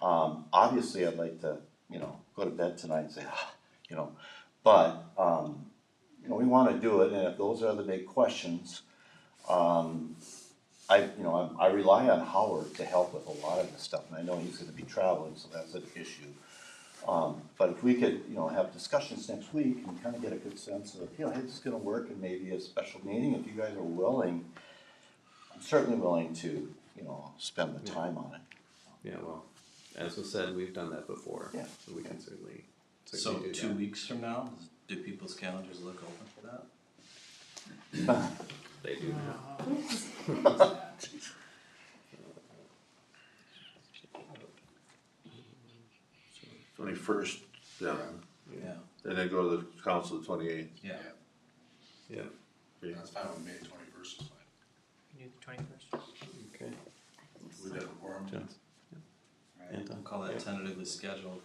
Um, obviously, I'd like to, you know, go to bed tonight and say, ah, you know, but, um, you know, we wanna do it, and if those are the big questions, um, I, you know, I, I rely on Howard to help with a lot of this stuff, and I know he's gonna be traveling, so that's an issue. Um, but if we could, you know, have discussions next week and kinda get a good sense of, you know, hey, this is gonna work, and maybe a special meeting, if you guys are willing, I'm certainly willing to, you know, spend the time on it. Yeah, well, as was said, we've done that before. Yeah. So we can certainly, So certainly do two that. weeks from now, do people's calendars look open for that? They do now. Twenty-first, yeah, Yeah, and then go to the council the twenty-eighth. yeah. Yeah, That's fine with me, twenty-first is fine. You do the twenty-first? okay. We got a quorum. Johnson. Right, we'll call that tentatively scheduled.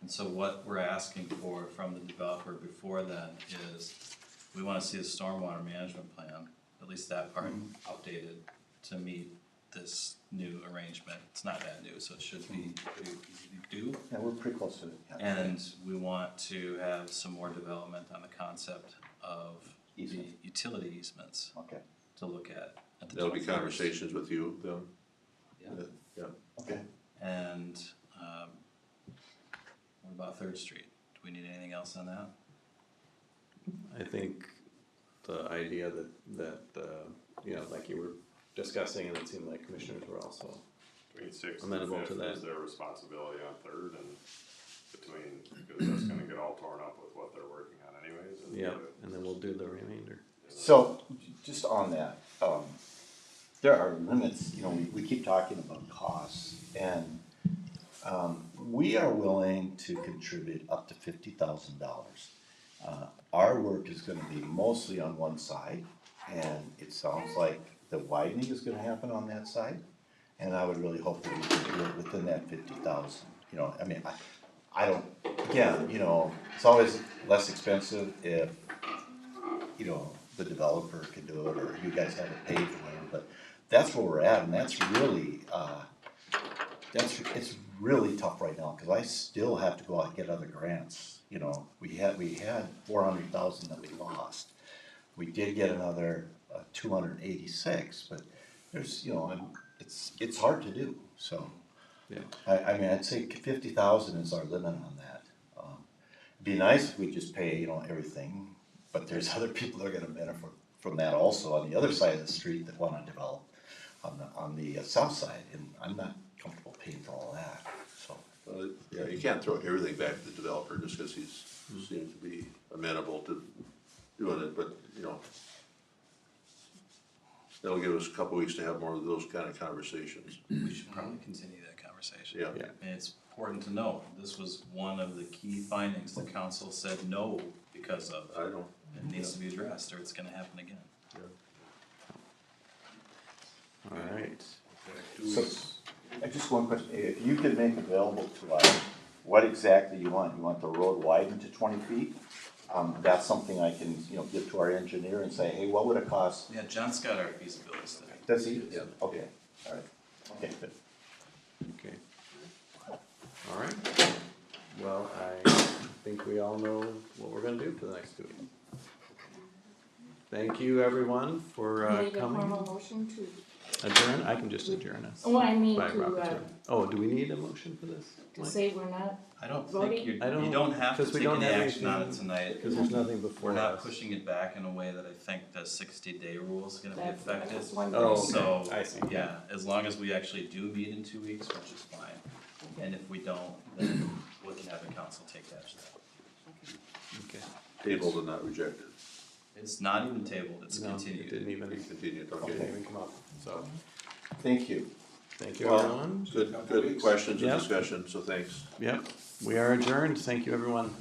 And so what we're asking for from the developer before then is, we wanna see a stormwater management plan, at least that part updated to meet this new arrangement. It's not that new, so it should be pretty easy to do. Yeah, we're pretty close to it, yeah. And we want to have some more development on the concept of the Easement. utility easements Okay, to look at. at the There'll be 21st. conversations with you then. Yeah. Yeah, okay. And, um, what about Third Street? Do we need anything else on that? I think the idea that, that, uh, you know, like you were discussing and it seemed like commissioners were also, Between sixth and Amenable to fifth that. is their responsibility on third and between, because that's gonna get all torn up with what they're working on anyways. and yeah, the- and then we'll do the remainder. So, j- just on that, um, there are limits, you know, we, we keep talking about costs, and, um, we are willing to contribute up to fifty thousand dollars. Uh, our work is gonna be mostly on one side, and it sounds like the widening is gonna happen on that side. And I would really hope that we can do it within that fifty thousand, you know, I mean, I, I don't, again, you know, it's always less expensive if you know, the developer can do it, or you guys have it paid or whatever, but that's where we're at, and that's really, uh, that's, it's really tough right now, cause I still have to go out and get other grants, you know, we had, we had four hundred thousand that we lost. We did get another, uh, two hundred and eighty-six, but there's, you know, and it's, it's hard to do, so. Yeah. I, I mean, I'd say fifty thousand is our limit on that. Um, It'd Be nice if we just pay, you know, everything, but there's other people that are gonna benefit from that also on the other side of the street that wanna develop on the, on the uh, south side, and I'm not comfortable paying for all that, so. Well, it- yeah, you can't throw everything back to the developer just because he's, seems to be amenable to doing it, but, you know. That'll give us a couple weeks to have more of those kind of conversations, We should probably continue that conversation. yeah. Yeah. And it's important to note, this was one of the key findings the council said no because of. I don't, It needs to be addressed or it's gonna happen again. All right, So, I just one question, if you could make available to us, what exactly you want, you want the road widened to twenty feet? Um, that's something I can, you know, give to our engineer and say, hey, what would it cost? Yeah, John's got our feasibility study. Does he? Okay, alright, okay, good. okay. All right, well, I think we all know what we're gonna do for the next two weeks. Thank you, everyone, for You uh, need a coming. formal motion to, Adjourn, I can just adjourn us. oh, I mean By to, uh, rapporteur. Oh, do we need a motion for this? to say we're not, I don't Voting? think you, you I don't- don't have to 'cause we take don't any have action on it anything- tonight. Because there's nothing before We're us. not pushing it back in a way that I think the sixty day rule is gonna be that's, that's affected. just one. Oh, thing. So, I see. yeah, as long as we actually do meet in two weeks, which is fine, and if we don't, then we can have the council take action. Okay. tabled and not rejected, It's not even tabled, it's No, it continued. didn't even, continued, didn't okay. even come up, so, Thank you. thank you Well- everyone. Good, good questions Yeah. and discussion, so thanks. Yep, we are adjourned, thank you everyone.